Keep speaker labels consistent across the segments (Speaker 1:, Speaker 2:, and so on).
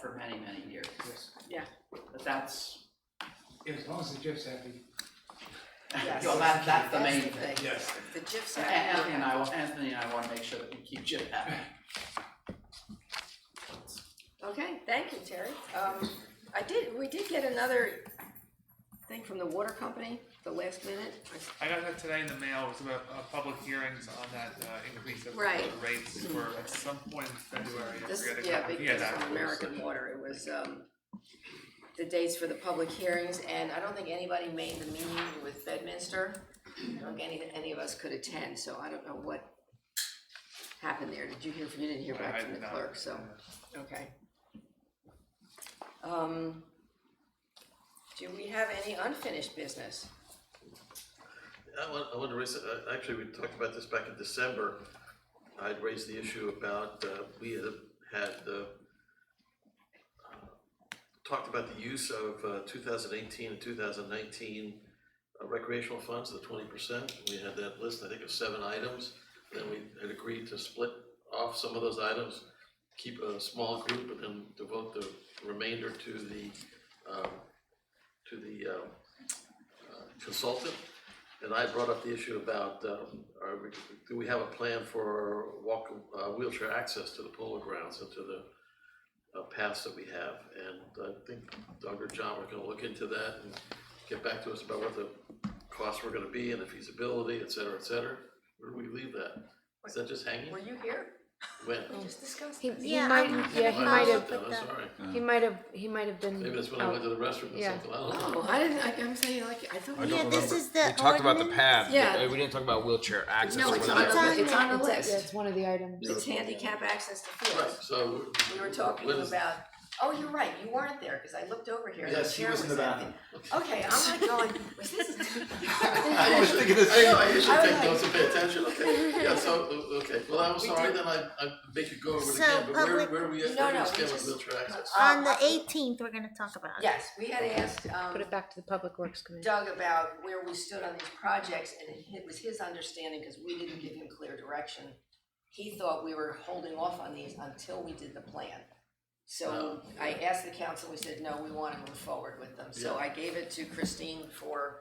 Speaker 1: for many, many years.
Speaker 2: Yes.
Speaker 1: But that's,
Speaker 2: As long as the GIF's happy.
Speaker 3: Yes.
Speaker 1: well, that, that's the main
Speaker 3: That's the
Speaker 1: thing.
Speaker 3: thing.
Speaker 2: Yes.
Speaker 3: The GIFs
Speaker 1: So
Speaker 3: are.
Speaker 1: An- Anthony and I, wa- Anthony and I wanna make sure that we keep Jim happy.
Speaker 3: Okay, thank you, Terry. Um, I did, we did get another thing from the water company, the last minute. I-
Speaker 4: I got that today in the mail, it was about, uh, public hearings on that, uh, increase of
Speaker 3: Right.
Speaker 4: the rates for at some point in February, I
Speaker 3: This,
Speaker 4: forget the.
Speaker 3: yeah,
Speaker 4: time.
Speaker 3: because
Speaker 4: that
Speaker 3: of
Speaker 4: was-
Speaker 3: American Water, it was, um, the dates for the public hearings, and I don't think anybody made the meeting with Bedminster. I don't think any, any of us could attend, so I don't know what happened there. Did you hear from, you didn't hear
Speaker 4: I- I
Speaker 3: back from the
Speaker 4: did not.
Speaker 3: clerk, so, okay. Um, do we have any unfinished business?
Speaker 5: I want, I want to raise, uh, actually, we talked about this back in December. I'd raised the issue about, uh, we had, had, uh, uh, talked about the use of, uh, two thousand eighteen and two thousand nineteen uh, recreational funds, the twenty percent. We had that list, I think, of seven items. Then we had agreed to split off some of those items, keep a small group, and then devote the remainder to the, um, to the, um, uh, consultant. And I brought up the issue about, um, are we, do we have a plan for walk, uh, wheelchair access to the polo grounds and to the uh, paths that we have? And I think Doug or John are gonna look into that and get back to us about what the costs were gonna be and the feasibility, et cetera, et cetera. Where do we leave that? Is that just hanging?
Speaker 3: Were you here?
Speaker 5: When?
Speaker 3: We just discussed
Speaker 6: He,
Speaker 3: this.
Speaker 6: he
Speaker 7: Yeah,
Speaker 6: might,
Speaker 7: I'm-
Speaker 6: yeah, he
Speaker 5: I
Speaker 6: might
Speaker 5: missed
Speaker 6: have,
Speaker 5: it then, I'm sorry.
Speaker 6: he might have, he might have been.
Speaker 5: Maybe that's when I
Speaker 6: out.
Speaker 5: went to the restroom or
Speaker 6: Yeah.
Speaker 5: something, I don't know.
Speaker 3: Oh, I didn't, I- I'm saying like, I thought.
Speaker 7: I
Speaker 3: we-
Speaker 7: don't
Speaker 3: Yeah,
Speaker 7: remember.
Speaker 3: this is-
Speaker 7: we talked about the
Speaker 8: ordinance?
Speaker 7: path, but
Speaker 3: Yeah.
Speaker 7: uh, we didn't talk about wheelchair access.
Speaker 3: No,
Speaker 7: or
Speaker 3: it's
Speaker 7: whether
Speaker 3: on
Speaker 7: that's-
Speaker 3: the, it's on the
Speaker 6: Yeah, Yeah,
Speaker 3: list.
Speaker 6: it's one of the items.
Speaker 3: It's handicap access to
Speaker 5: Right,
Speaker 3: fields.
Speaker 5: so.
Speaker 3: We were talking
Speaker 5: when is-
Speaker 3: about, oh, you're right, you weren't there, cause I looked over here and the
Speaker 9: Yes, he
Speaker 3: chair was
Speaker 9: was in the
Speaker 3: empty. Okay, I'm not going, was this?
Speaker 5: I was thinking the same. I know, I usually
Speaker 3: I was
Speaker 5: take
Speaker 3: like-
Speaker 5: notes and pay attention, okay, yeah, so, o- okay, well, I'm sorry, then I, I make it go over it again,
Speaker 8: So,
Speaker 5: but where,
Speaker 8: public-
Speaker 5: where do we,
Speaker 3: No,
Speaker 5: where do
Speaker 3: no,
Speaker 5: we
Speaker 3: we
Speaker 5: stand with
Speaker 3: just-
Speaker 5: wheelchair access?
Speaker 3: Uh,
Speaker 8: On the
Speaker 3: I-
Speaker 8: eighteenth, we're gonna talk about it.
Speaker 3: Yes, we had asked,
Speaker 6: Put
Speaker 3: um,
Speaker 6: it back to the Public Works Committee.
Speaker 3: Doug about where we stood on these projects and it- it was his understanding, cause we didn't give him clear direction. He thought we were holding off on these until we did the plan. So
Speaker 5: Oh,
Speaker 3: I asked the council, we said, no, we wanna move forward with them, so
Speaker 5: Yeah.
Speaker 3: I gave it to Christine for,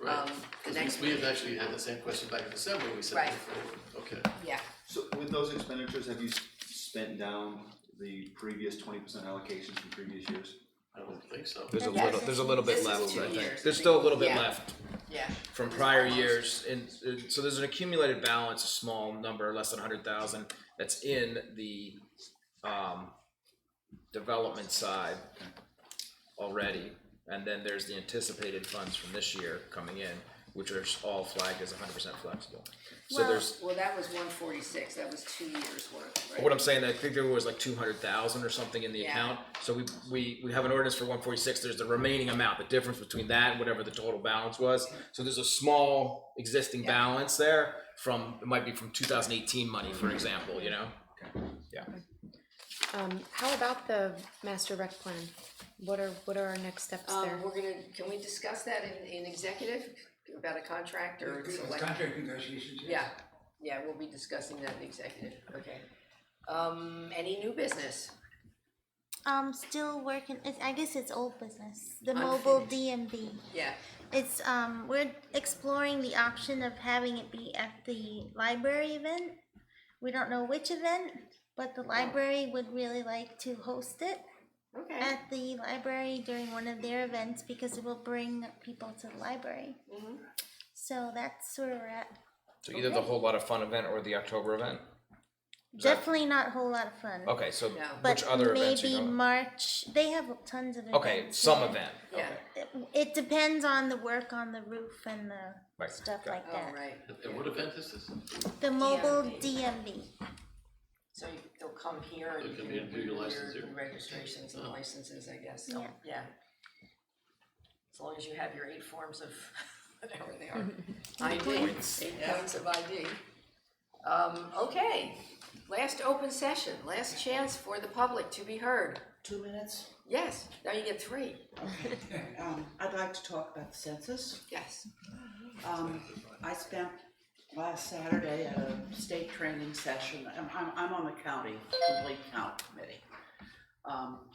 Speaker 3: um,
Speaker 5: Right,
Speaker 3: the
Speaker 5: 'cause
Speaker 3: next
Speaker 5: we, we
Speaker 3: meeting,
Speaker 5: had actually had the same question back in December, we said,
Speaker 3: Right.
Speaker 5: before. okay,
Speaker 3: yeah.
Speaker 9: So with those expenditures, have you s- spent down the previous twenty percent allocations from previous years?
Speaker 5: I don't think so.
Speaker 7: There's a
Speaker 3: Yes.
Speaker 7: little, there's a little
Speaker 3: This
Speaker 7: bit
Speaker 3: is
Speaker 7: left,
Speaker 3: two
Speaker 7: I think.
Speaker 3: years,
Speaker 7: There's
Speaker 3: I
Speaker 7: still a
Speaker 3: think.
Speaker 7: little bit
Speaker 3: Yeah.
Speaker 7: left
Speaker 3: Yeah.
Speaker 7: from
Speaker 3: It was
Speaker 7: prior
Speaker 3: almost-
Speaker 7: years, and, and so there's an accumulated balance, a small number, less than hundred thousand, that's in the, um, development side already, and then there's the anticipated funds from this year coming in, which are all flagged as hundred percent flexible. So
Speaker 8: Well-
Speaker 7: there's,
Speaker 3: Well, that was one forty-six, that was two years worth, right?
Speaker 7: What I'm saying, I think there was like two hundred thousand or something in the
Speaker 3: Yeah.
Speaker 7: account, so we, we, we have an ordinance for one forty-six, there's the remaining amount, the difference between that and whatever the total balance was. So there's a small existing
Speaker 3: Yeah.
Speaker 7: balance there from, it might be from two thousand eighteen money,
Speaker 8: Mm-hmm.
Speaker 7: for example, you know?
Speaker 6: Um, how about the master rec plan? What are, what are our next steps there?
Speaker 3: Um, we're gonna, can we discuss that in, in executive about a contract or
Speaker 2: It's
Speaker 3: select?
Speaker 2: Contract negotiations, yes.
Speaker 3: Yeah, yeah, we'll be discussing that in executive, okay. Um, any new business?
Speaker 8: Um, still working, it's, I guess it's old business, the mobile DMV.
Speaker 3: Yeah,
Speaker 8: It's, um, we're exploring the option of having it be at the library event. We don't know which event, but the library would really like to host it
Speaker 3: okay.
Speaker 8: at the library during one of their events because it will bring people to the library.
Speaker 3: Mhm.
Speaker 8: So that's where we're at.
Speaker 7: So either the whole lot of fun event or the October event. Is that-
Speaker 8: Definitely not a whole lot of fun.
Speaker 7: Okay, so
Speaker 3: No.
Speaker 7: which
Speaker 8: But
Speaker 7: other events you
Speaker 8: maybe
Speaker 7: know?
Speaker 8: March. They have tons of events.
Speaker 7: Uh-huh. Okay, some
Speaker 8: yeah.
Speaker 7: event, okay.
Speaker 3: Yeah.
Speaker 8: It depends on the work on the roof and the
Speaker 7: Right,
Speaker 8: stuff
Speaker 7: okay.
Speaker 8: like
Speaker 3: Oh,
Speaker 8: that.
Speaker 3: right,
Speaker 5: And- And what event is this?
Speaker 8: The mobile
Speaker 3: DMV.
Speaker 8: DMV.
Speaker 3: so you- they'll come here and
Speaker 5: They
Speaker 3: you
Speaker 5: can
Speaker 3: can
Speaker 5: be- do
Speaker 3: do
Speaker 5: your
Speaker 3: your
Speaker 5: license Uh-huh. here.
Speaker 3: registrations and licenses, I guess, so,
Speaker 8: Yeah.
Speaker 3: yeah. As long as you have your eight forms of, whatever they are, ID, eight points of ID. Um, okay, last open session, last chance for the public to be heard.
Speaker 10: Two minutes.
Speaker 3: Yes, now you get three,
Speaker 10: Um, I'd like to talk about the census.
Speaker 3: yes.
Speaker 10: Um, I spent last Saturday at a state training session. I'm, I'm, I'm on the county, complete count committee. Um,